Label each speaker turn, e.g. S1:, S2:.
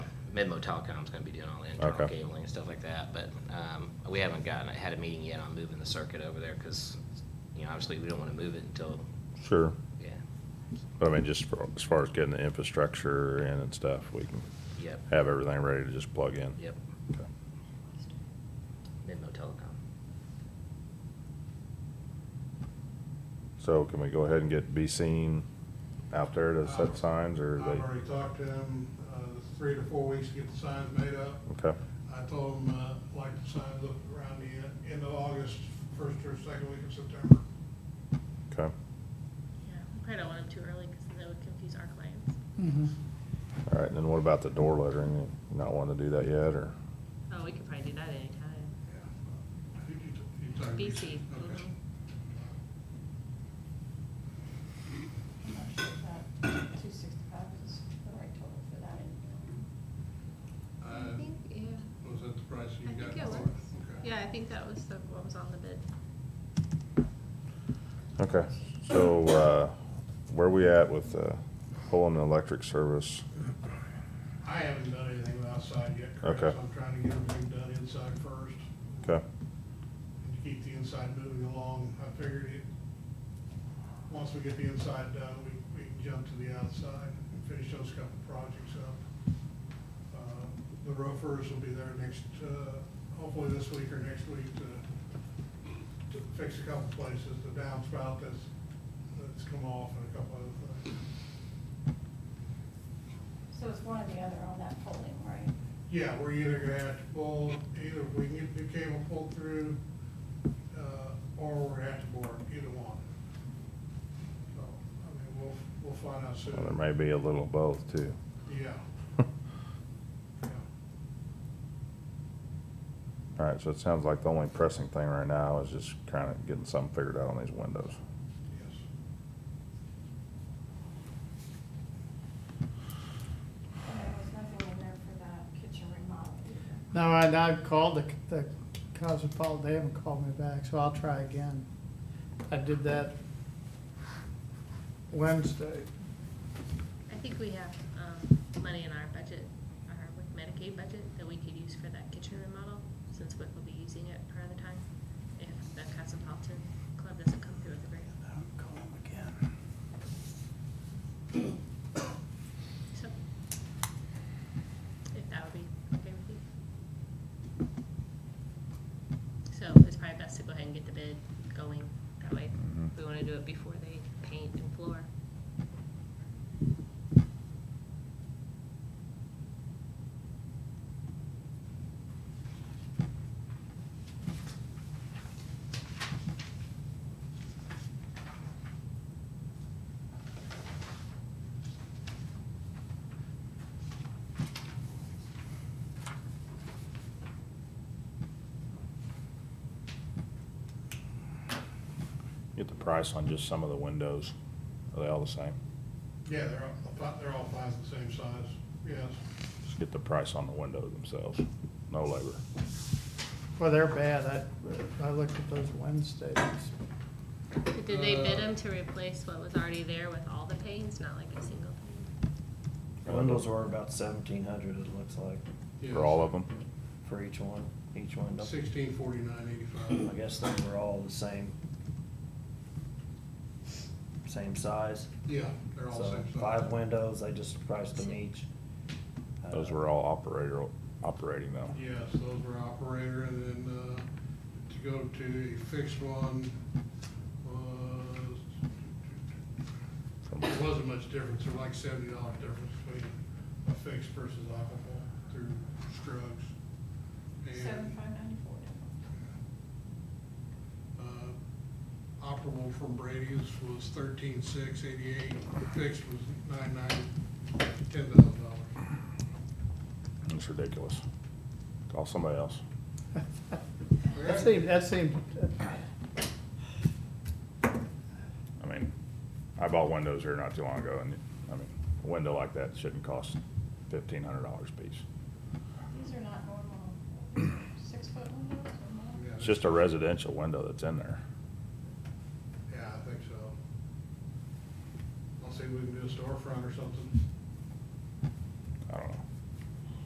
S1: Medlo Telecom's gonna be doing all the internal
S2: Okay.
S1: cabling and stuff like that, but, um, we haven't gotten, had a meeting yet on moving the circuit over there, cause, you know, obviously, we don't wanna move it until,
S2: Sure.
S1: yeah,
S2: But I mean, just for, as far as getting the infrastructure in and stuff, we can
S1: yep,
S2: have everything ready to just plug in.
S1: yep,
S2: Okay.
S1: Medlo Telecom.
S2: So can we go ahead and get B seen out there to set signs or
S3: I've
S2: they?
S3: already talked to them, uh, three to four weeks to get the signs made up.
S2: Okay,
S3: I told them, uh, like the signs up around the en- end of August, first or second week of September.
S2: okay.
S4: Yeah, we probably don't want them too early because that would confuse our clients.
S2: All right, and then what about the door lettering? You Not wanting to do that yet or?
S5: Oh, we could probably do that anytime.
S3: Yeah. I think you t- you talked-
S5: BC.
S3: Okay.
S5: mhm.
S6: Two sixty-five is the right total for that
S3: Uh,
S4: yeah,
S3: Was that the price you
S4: I
S3: got?
S4: Mm-hmm. think it
S3: for
S4: was.
S3: Okay.
S4: Yeah, I think that was the, what was on the bid.
S2: Okay, so, uh, where we at with, uh, pulling the electric service?
S3: I haven't done anything outside yet, Chris.
S2: Okay.
S3: I'm trying to get everything done inside first,
S2: Okay,
S3: and to keep the inside moving along. I figured it, once we get the inside done, we, we can jump to the outside and finish those couple projects up. Uh, The roofers will be there next, uh, hopefully this week or next week to, to fix a couple places, the downspout that's, that's come off and a couple other things.
S6: So it's one or the other on that polling, right?
S3: Yeah, we're either gonna have to pull, either we can get the cable pulled through, uh, or we're gonna have to bore, it, either one. So, I mean, we'll, we'll find out soon.
S2: well, there may be a little of both too.
S3: Yeah, yeah.
S2: All right, so it sounds like the only pressing thing right now is just kind of getting something figured out on these windows.
S3: Yes.
S6: And there was nothing in there for that kitchen remodel either.
S7: No, and I've called the, the Cosmopolitan, they haven't called me back, so I'll try again. I did that Wednesday.
S4: I think we have, um, money in our budget, our with Medicaid budget, that we could use for that kitchen remodel, since Wick will be using it part of the time, if the Cosmopolitan Club doesn't come through with a grant.
S7: I'll call them again.
S4: So, if that would be okay with you. So it's probably best to go ahead and get the bid going that way.
S2: Mhm.
S5: We wanna do it before they paint and floor.
S2: Get the price on just some of the windows. Are they all the same?
S3: Yeah, they're all, about- they're all five the same size, yes.
S2: Just get the price on the windows themselves, no labor.
S7: Well, they're bad, I, I looked at those Wednesdays.
S4: Did they bid
S7: Uh,
S4: them to replace what was already there with all the panes, not like a single pane?
S8: The Windows were about seventeen hundred, it looks like,
S3: Yes.
S2: For all of them?
S8: for each one, each window.
S3: Sixteen forty-nine
S8: I
S3: eighty-five.
S8: guess they were all the same. Same size.
S3: Yeah, they're all
S8: So
S3: same size.
S8: five windows, they just priced them each.
S2: Those
S8: Uh,
S2: were all operator, operating though.
S3: Yes, those were operator, and then, uh, to go to a fixed one was,
S2: From-
S3: It wasn't much difference, there was like seventy dollar difference between a fixed versus operable through Scruggs.
S6: Seven
S3: And,
S6: five ninety-four different.
S3: uh, operable from Brady's was thirteen six eighty-eight, fixed was nine nine, ten thousand dollars.
S2: It's ridiculous. Call somebody else.
S7: That seemed, that seemed,
S2: I mean, I bought windows here not too long ago and, I mean, a window like that shouldn't cost fifteen hundred dollars a piece.
S6: These are not normal, six-foot windows or more?
S2: It's just a residential window that's in there.
S3: Yeah, I think so. I'll see if we can do a storefront or something.
S2: I don't know.